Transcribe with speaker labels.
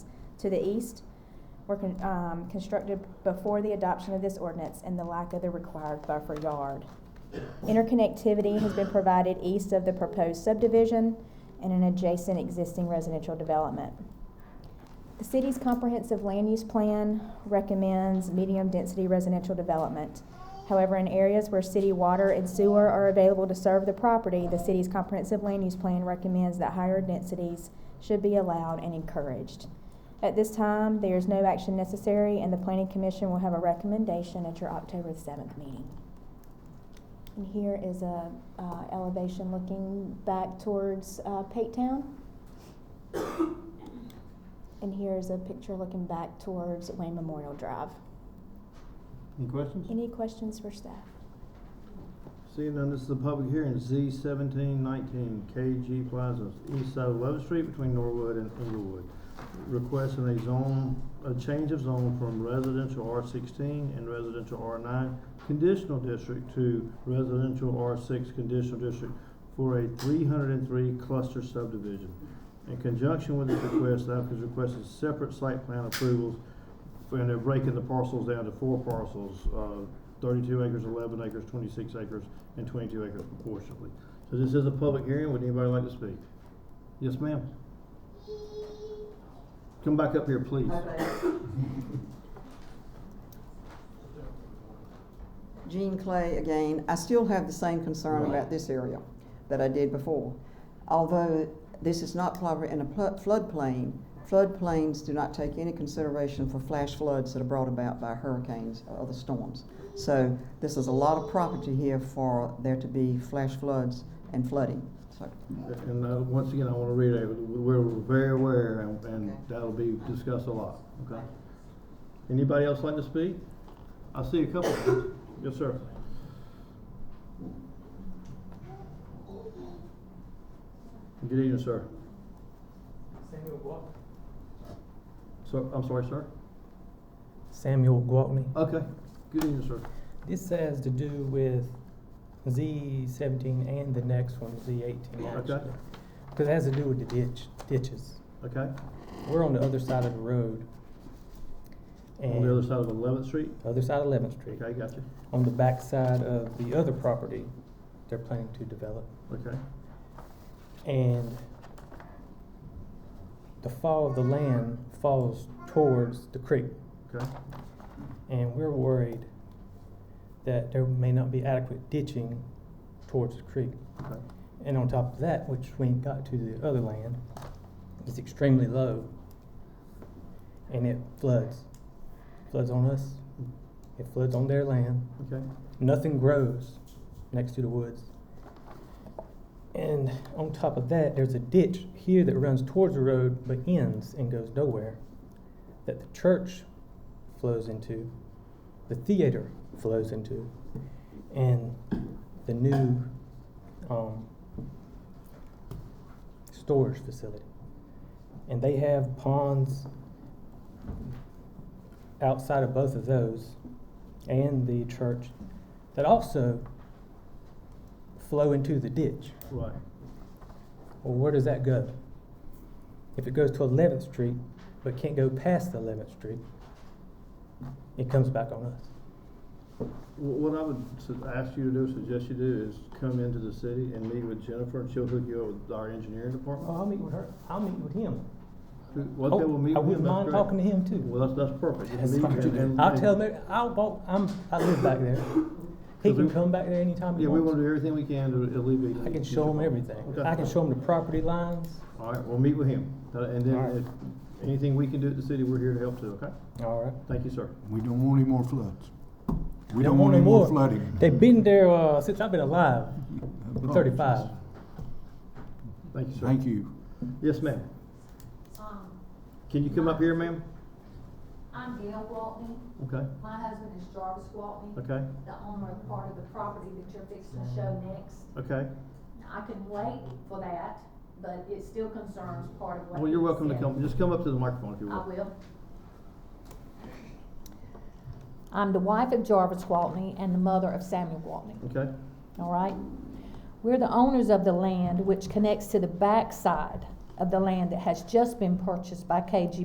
Speaker 1: to the east were con- um, constructed before the adoption of this ordinance and the lack of the required buffer yard. Interconnectivity has been provided east of the proposed subdivision and an adjacent existing residential development. The city's comprehensive land use plan recommends medium-density residential development. However, in areas where city water and sewer are available to serve the property, the city's comprehensive land use plan recommends that higher densities should be allowed and encouraged. At this time, there is no action necessary, and the planning commission will have a recommendation at your October seventh meeting. And here is a, uh, elevation looking back towards, uh, Pate Town. And here's a picture looking back towards Wayne Memorial Drive.
Speaker 2: Any questions?
Speaker 1: Any questions for staff?
Speaker 2: Seeing none, this is a public hearing, Z seventeen nineteen, KG Plaza, east side of Love Street between Norwood and Inglewood. Requesting a zone, a change of zone from residential R sixteen and residential R nine conditional district to residential R six conditional district for a three hundred and three cluster subdivision. In conjunction with this request, the applicant is requesting separate site plan approvals and they're breaking the parcels down to four parcels, uh, thirty-two acres, eleven acres, twenty-six acres, and twenty-two acres proportionately. So this is a public hearing, would anybody like to speak? Yes, ma'am? Come back up here, please.
Speaker 3: Jean Clay again. I still have the same concern about this area that I did before. Although this is not proper in a pl- floodplain, floodplains do not take any consideration for flash floods that are brought about by hurricanes or other storms. So this is a lot of property here for there to be flash floods and flooding. So,
Speaker 2: And, uh, once again, I wanna reiterate, we're very aware, and, and
Speaker 3: Okay.
Speaker 2: that'll be discussed a lot, okay? Anybody else like to speak? I see a couple. Yes, sir. Good evening, sir.
Speaker 4: Samuel Walker.
Speaker 2: So, I'm sorry, sir?
Speaker 4: Samuel Gwaltney.
Speaker 2: Okay, good evening, sir.
Speaker 4: This has to do with Z seventeen and the next one, Z eighteen
Speaker 2: Okay.
Speaker 4: actually. Cause it has to do with the ditch, ditches.
Speaker 2: Okay,
Speaker 4: We're on the other side of the road.
Speaker 2: on the other
Speaker 4: and-
Speaker 2: side of Eleventh Street?
Speaker 4: Other side of Eleventh Street.
Speaker 2: Okay, gotcha.
Speaker 4: On the back side of the other property they're planning to develop.
Speaker 2: Okay,
Speaker 4: And the fall of the land falls towards the creek.
Speaker 2: okay,
Speaker 4: and we're worried that there may not be adequate ditching towards the creek.
Speaker 2: okay,
Speaker 4: And on top of that, which we ain't got to the other land, is extremely low. And it floods. Floods on us, it floods on their land.
Speaker 2: okay,
Speaker 4: Nothing grows next to the woods. And on top of that, there's a ditch here that runs towards the road but ends and goes nowhere that the church flows into, the theater flows into, and the new um, storage facility. And they have ponds outside of both of those and the church that also flow into the ditch.
Speaker 2: right,
Speaker 4: Well, where does that go? If it goes to 11th Street, but can't go past 11th Street, it comes back on us.
Speaker 2: Wh- What I would su- ask you to do, suggest you do, is come into the city and meet with Jennifer, and she'll hook you up with our engineering department.
Speaker 4: Well, Oh, I'll meet with her. I'll meet with him.
Speaker 2: Well, Okay,
Speaker 4: Uh-huh. Oh,
Speaker 2: we'll meet with him.
Speaker 4: I wouldn't
Speaker 2: that's
Speaker 4: mind
Speaker 2: great.
Speaker 4: talking to him too.
Speaker 2: Well, that's, that's perfect. You can
Speaker 4: That's
Speaker 2: meet
Speaker 4: fine.
Speaker 2: with him and-
Speaker 4: I'll tell him. I'll walk. I'm. I live back there. He
Speaker 2: So
Speaker 4: can
Speaker 2: we-
Speaker 4: come back there anytime he
Speaker 2: Yeah, we
Speaker 4: wants.
Speaker 2: wanna do everything we can to alleviate.
Speaker 4: I can
Speaker 2: these
Speaker 4: show him
Speaker 2: problems.
Speaker 4: everything.
Speaker 2: Okay.
Speaker 4: I can show him the property lines.
Speaker 2: All right, we'll meet with him, Uh, and
Speaker 4: All
Speaker 2: then
Speaker 4: right.
Speaker 2: if anything we can do at the city, we're here to help too, okay?
Speaker 4: All right.
Speaker 2: Thank you, sir.
Speaker 5: We don't want any more floods. We
Speaker 4: Don't
Speaker 5: don't want
Speaker 4: want
Speaker 5: any
Speaker 4: no
Speaker 5: more
Speaker 4: more.
Speaker 5: flooding.
Speaker 4: They've been there uh, since I've been alive.
Speaker 2: Oh,
Speaker 5: Apologies.
Speaker 4: Thirty-five.
Speaker 2: Thank you, sir.
Speaker 5: Thank you.
Speaker 2: Yes, ma'am.
Speaker 6: Um,
Speaker 2: Can you come up here, ma'am?
Speaker 6: I'm Gail Waltney,
Speaker 2: Okay,
Speaker 6: my husband is Jarvis Waltney.
Speaker 2: okay, Mm.
Speaker 6: The owner of part of the property that you're fixing to show next.
Speaker 2: okay.
Speaker 6: I can wait for that, but it still concerns part of what.
Speaker 2: Well, you're
Speaker 6: he
Speaker 2: welcome to
Speaker 6: said.
Speaker 2: come, just come up to the microphone if you
Speaker 6: I
Speaker 2: will.
Speaker 6: will. I'm the wife of Jarvis Waltney and the mother of Samuel Waltney.
Speaker 2: Okay,
Speaker 6: all right? We're the owners of the land which connects to the backside of the land that has just been purchased by KG